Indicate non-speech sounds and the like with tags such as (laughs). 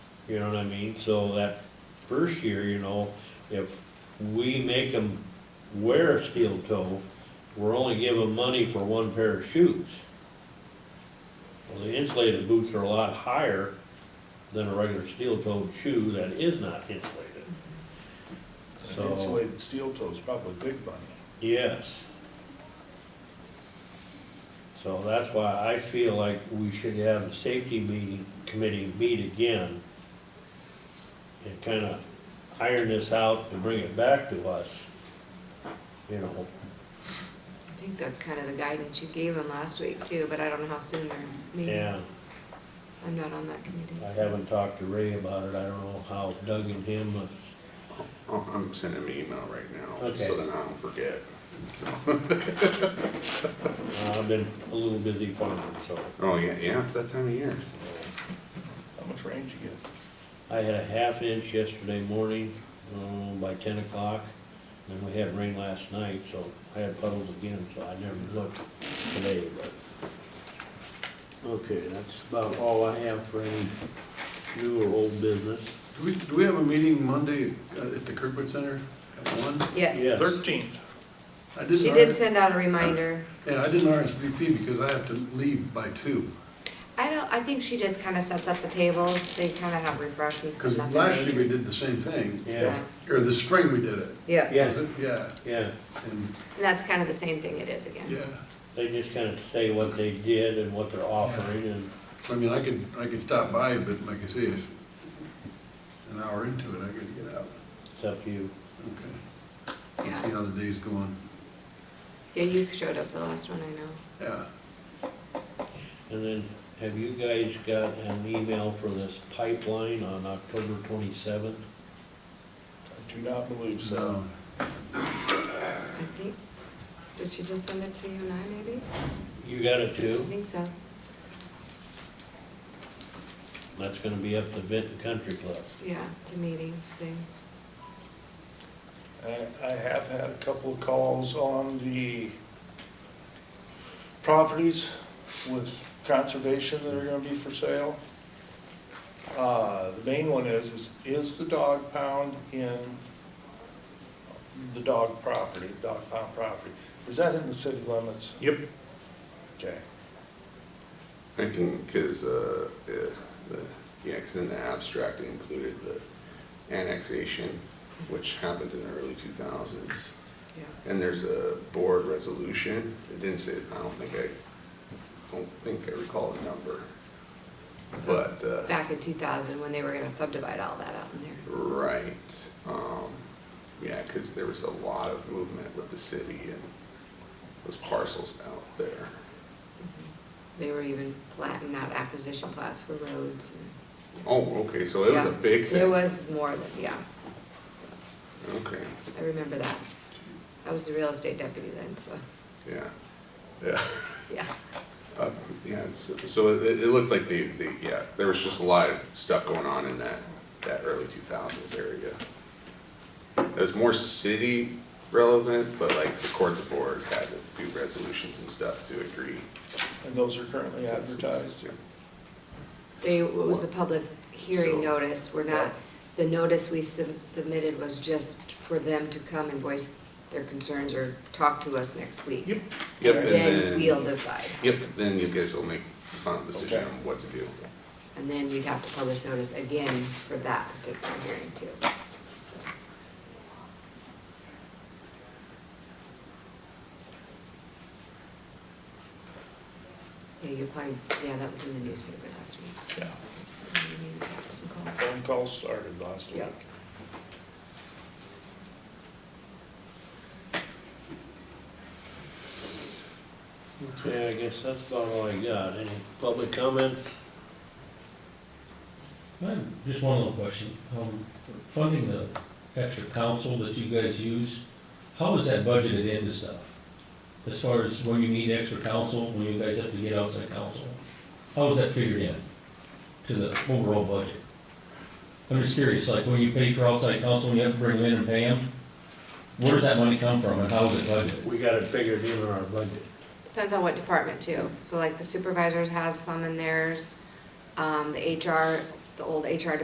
You know what I mean? So that first year, you know, if we make them wear a steel toe, we're only giving money for one pair of shoes. Well, the insulated boots are a lot higher than a regular steel-toed shoe that is not insulated. So, Insulated steel toe is probably big money. yes. So that's why I feel like we should have the safety meeting, committee meet again and kind of iron this out and bring it back to us, you know. I think that's kind of the guidance you gave them last week too, but I don't know how soon they're meeting. Yeah, I'm not on that committee. I so- haven't talked to Ray about it. I don't know how Doug and him, uh, Oh, I'm sending him an email right now, Okay. so then I don't forget. uh, I've been a little busy farming, so. Oh, yeah, yeah, it's that time of year. How much range you get? I had a half inch yesterday morning, um, by ten o'clock, and we had rain last night, so I had puddles again, so I never looked today, but. Okay, that's about all I have for any new or old business. Do we, do we have a meeting Monday uh, at the Kirkwood Center at one? Yeah. Yes, Thirteenth. I didn't. she did RS send out a reminder. Yeah, I didn't RSVP because I have to leave by two. I don't, I think she just kind of sets up the tables, they kind of have refreshments, but Because nothing. last year we major. did the same thing, Yeah, or this spring we did it. Yeah, yeah, Was it? Yeah, yeah, and, and that's kind of the same thing it is again. yeah. they just kinda say what they did and what they're offering and, So I mean, I could, I could stop by, but like I say, if an hour into it, I gotta get out. it's up to you. Okay. Let's see Yeah, how the day's going. yeah, you showed up the last one, I know. Yeah. And then, have you guys got an email for this pipeline on October twenty-seventh? I do not believe so. So, I think, did she just send it to you and I maybe? You got it I too? think so. That's gonna be up to Benton Country Club. Yeah, it's a meeting thing. I, I have had a couple of calls on the properties with conservation that are gonna be for sale. Uh, the main one is, is, is the dog pound in the dog property, dog pound property? Is that in the city limits? Yep. Okay. I can, cause, uh, uh, the, yeah, cause in the abstract it included the annexation, which happened in the early two thousands. Yeah. And there's a board resolution, it didn't say, I don't think I, don't think I recall the number. But, uh. Back in two thousand, when they were gonna subdivide all that out in there. Right, um, yeah, cause there was a lot of movement with the city and those parcels out there. They were even platting out acquisition plots for roads and. Oh, okay, so it was Yeah. a big It thing, was more than, yeah, okay, I remember that. I was the real estate deputy then, so, yeah, yeah, (laughs) yeah. uh, yeah, it's, so it, it looked like the, the, yeah, there was just a lot of stuff going on in that, that early two thousands area. It was more city relevant, but like the court of board had to do resolutions and stuff to agree. And those are currently advertised. They, it was a public hearing So- notice, we're not, the notice we sub- submitted was just for them to come and voice their concerns or talk to us next week. Yep. Yep, and Then then. we'll decide, Yep, then you guys will make the final decision Okay. on what to do. and then we'd have to publish notice again for that particular hearing too. So, Yeah, you're probably, yeah, that was in the newspaper last week. so Yeah. that's probably when you got some calls. Phone calls started last week. Yep. Okay, I guess that's about all I got. Any public comments? I have Just one little question. Um, Funding the extra council that you guys use, how is that budgeted into stuff? As far as when you need extra council, when you guys have to get outside council, how is that figured in to the overall budget? I'm just curious, like when you pay for outside council and you have to bring them in and pay them, where does that money come from and how is it budgeted? We got it figured in our budget. Depends on what department too. So like the supervisors has some in theirs, um, the HR, the old HR